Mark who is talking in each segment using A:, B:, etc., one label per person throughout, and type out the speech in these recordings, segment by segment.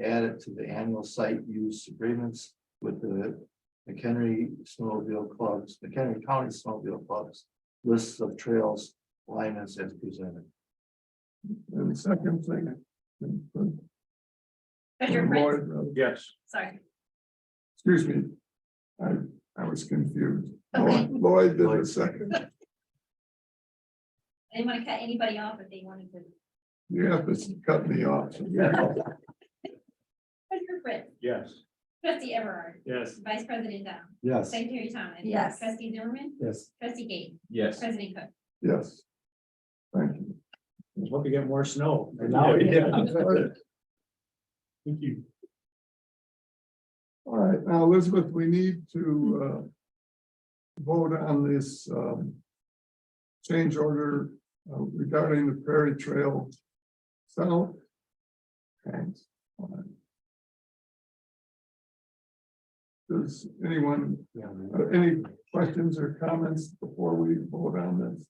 A: add it to the annual site use agreements with the McHenry Snowmobile Clubs, McHenry County Snowmobile Clubs. Lists of trails, alignments as presented.
B: And second thing. uh,
C: Treasurer Prince,
D: Yes.
C: sorry,
B: Excuse me. I, I was confused.
C: Okay.
B: Lloyd- Lloyd did the second.
C: I didn't want to cut anybody off if they wanted to.
B: You have to cut me off.
C: Treasurer Prince,
D: Yes.
C: trustee Everard,
D: Yes.
C: vice president Down,
A: Yes.
C: secretary Thomas.
E: Yes.
C: Trustee Zimmerman,
A: Yes.
C: trustee Gayton,
D: Yes.
C: president Cook.
B: Yes. Thank you.
D: Hope you get more snow. Thank you.
B: All right, now Elizabeth, we need to uh. Vote on this um. Change order uh, regarding the Prairie Trail. South. Thanks. All right. Does anyone, uh, any questions or comments before we vote on this?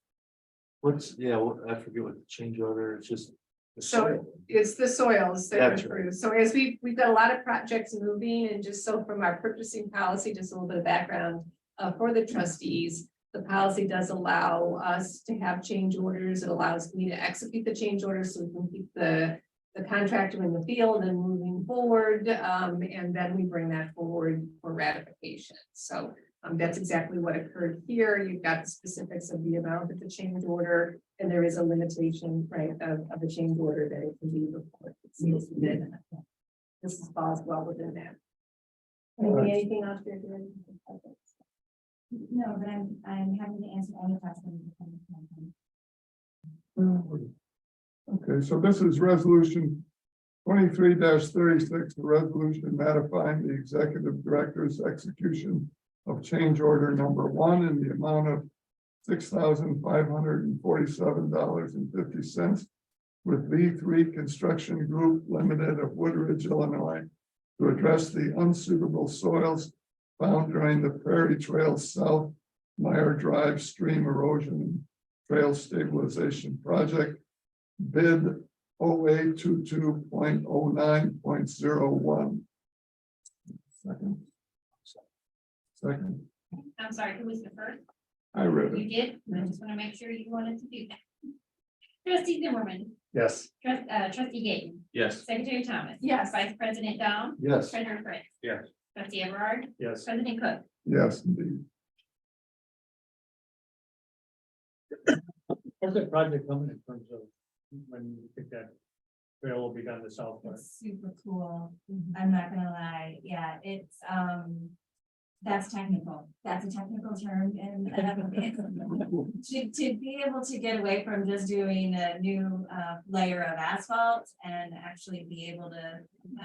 A: What's, yeah, well, I forget what the change order, it's just. the
F: So-
A: soil.
F: It's the soils that are
A: That's right.
F: approved. So as we, we've got a lot of projects moving and just so from our purchasing policy, just a little bit of background. Uh, for the trustees, the policy does allow us to have change orders. It allows me to execute the change orders so we can keep the. The contractor in the field and moving forward, um, and then we bring that forward for ratification. So. Um, that's exactly what occurred here. You've got the specifics of the amount of the change order. And there is a limitation, right, of, of a change order that it can be before it's submitted. This is falls well within that.
B: Alright.
F: Maybe anything else you're doing?
E: No, but I'm, I'm happy to answer any questions.
B: Oh, Okay, so this is resolution twenty-three thirty-six, the resolution ratifying the executive director's execution of change order number one in the amount of six thousand five hundred and forty-seven dollars and fifty cents with V three Construction Group Limited of Woodridge, Illinois, to address the unsuitable soils found during the Prairie Trail South Meyer Drive Stream Erosion Trail Stabilization Project. Bid 0822.09.01. Second. Second,
C: I'm sorry, who was the first?
B: I read it.
C: You did, I just want to make sure you wanted to do that. Trustee Zimmerman,
A: Yes.
C: trust, uh, trustee Gayton,
D: Yes.
C: secretary Thomas.
F: Yes.
C: Vice president Down,
A: Yes.
C: treasurer Prince.
D: Yes.
C: Trustee Everard,
D: Yes.
C: president Cook.
B: Yes, indeed.
D: Where's that project coming in terms of when you think that trail will be done to south? Park?
E: It's super cool.
F: Mm-hmm.
E: I'm not gonna lie. Yeah, it's, um, that's technical. That's a technical term and um, to, to be able to get away from just doing a new, uh, layer of asphalt and actually be able to,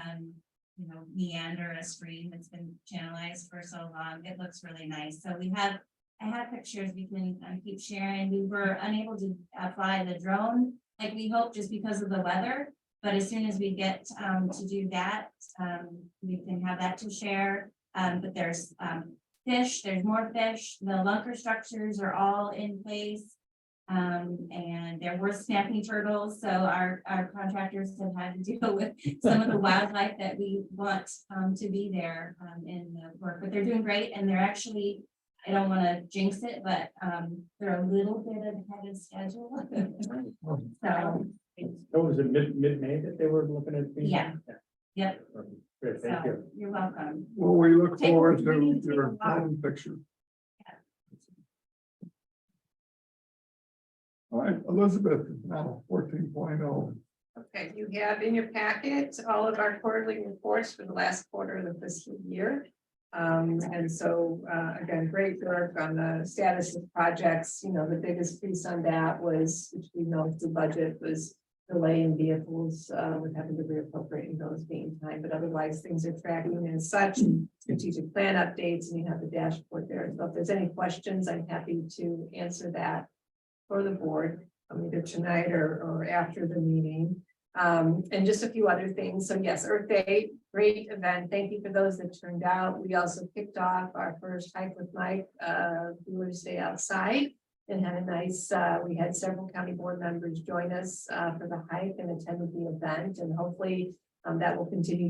E: um, you know, meander a stream that's been channelized for so long. It looks really nice. So we have, I have pictures we can, uh, keep sharing. We were unable to uh, fly the drone like we hoped just because of the weather. But as soon as we get um to do that, um we can have that to share. Um but there's um fish, there's more fish, the lunker structures are all in place. Um and there were snapping turtles, so our our contractors have had to deal with some of the wildlife that we want um to be there um in the work, but they're doing great and they're actually. I don't wanna jinx it, but um they're a little bit ahead of schedule. So,
D: That was in Oh, mid, mid-May that they were looking at. being done?
E: yep,
D: Good, thank
E: so
D: you.
E: you're welcome.
B: Well, we look
E: Take-
B: forward
E: we
B: to
E: need to
B: your
E: take a
B: own picture. All right, Elizabeth, now fourteen oh.
F: Okay, you have in your packet all of our quarterly reports for the last quarter of the fiscal year. Um, and so, uh, again, great work on the status of projects, you know, the biggest piece on that was, which we know is the budget was. Delay in vehicles, uh, with having to reappropriate and those being time, but otherwise things are tracking and such. Strategic plan updates and you have the dashboard there. So if there's any questions, I'm happy to answer that. For the board, um, either tonight or, or after the meeting. Um, and just a few other things. So yes, Earth Day, great event. Thank you for those that turned out. We also kicked off our first hike with Mike, uh, we were to stay outside. And had a nice, uh, we had several county board members join us, uh, for the hike and attended the event and hopefully, um, that will continue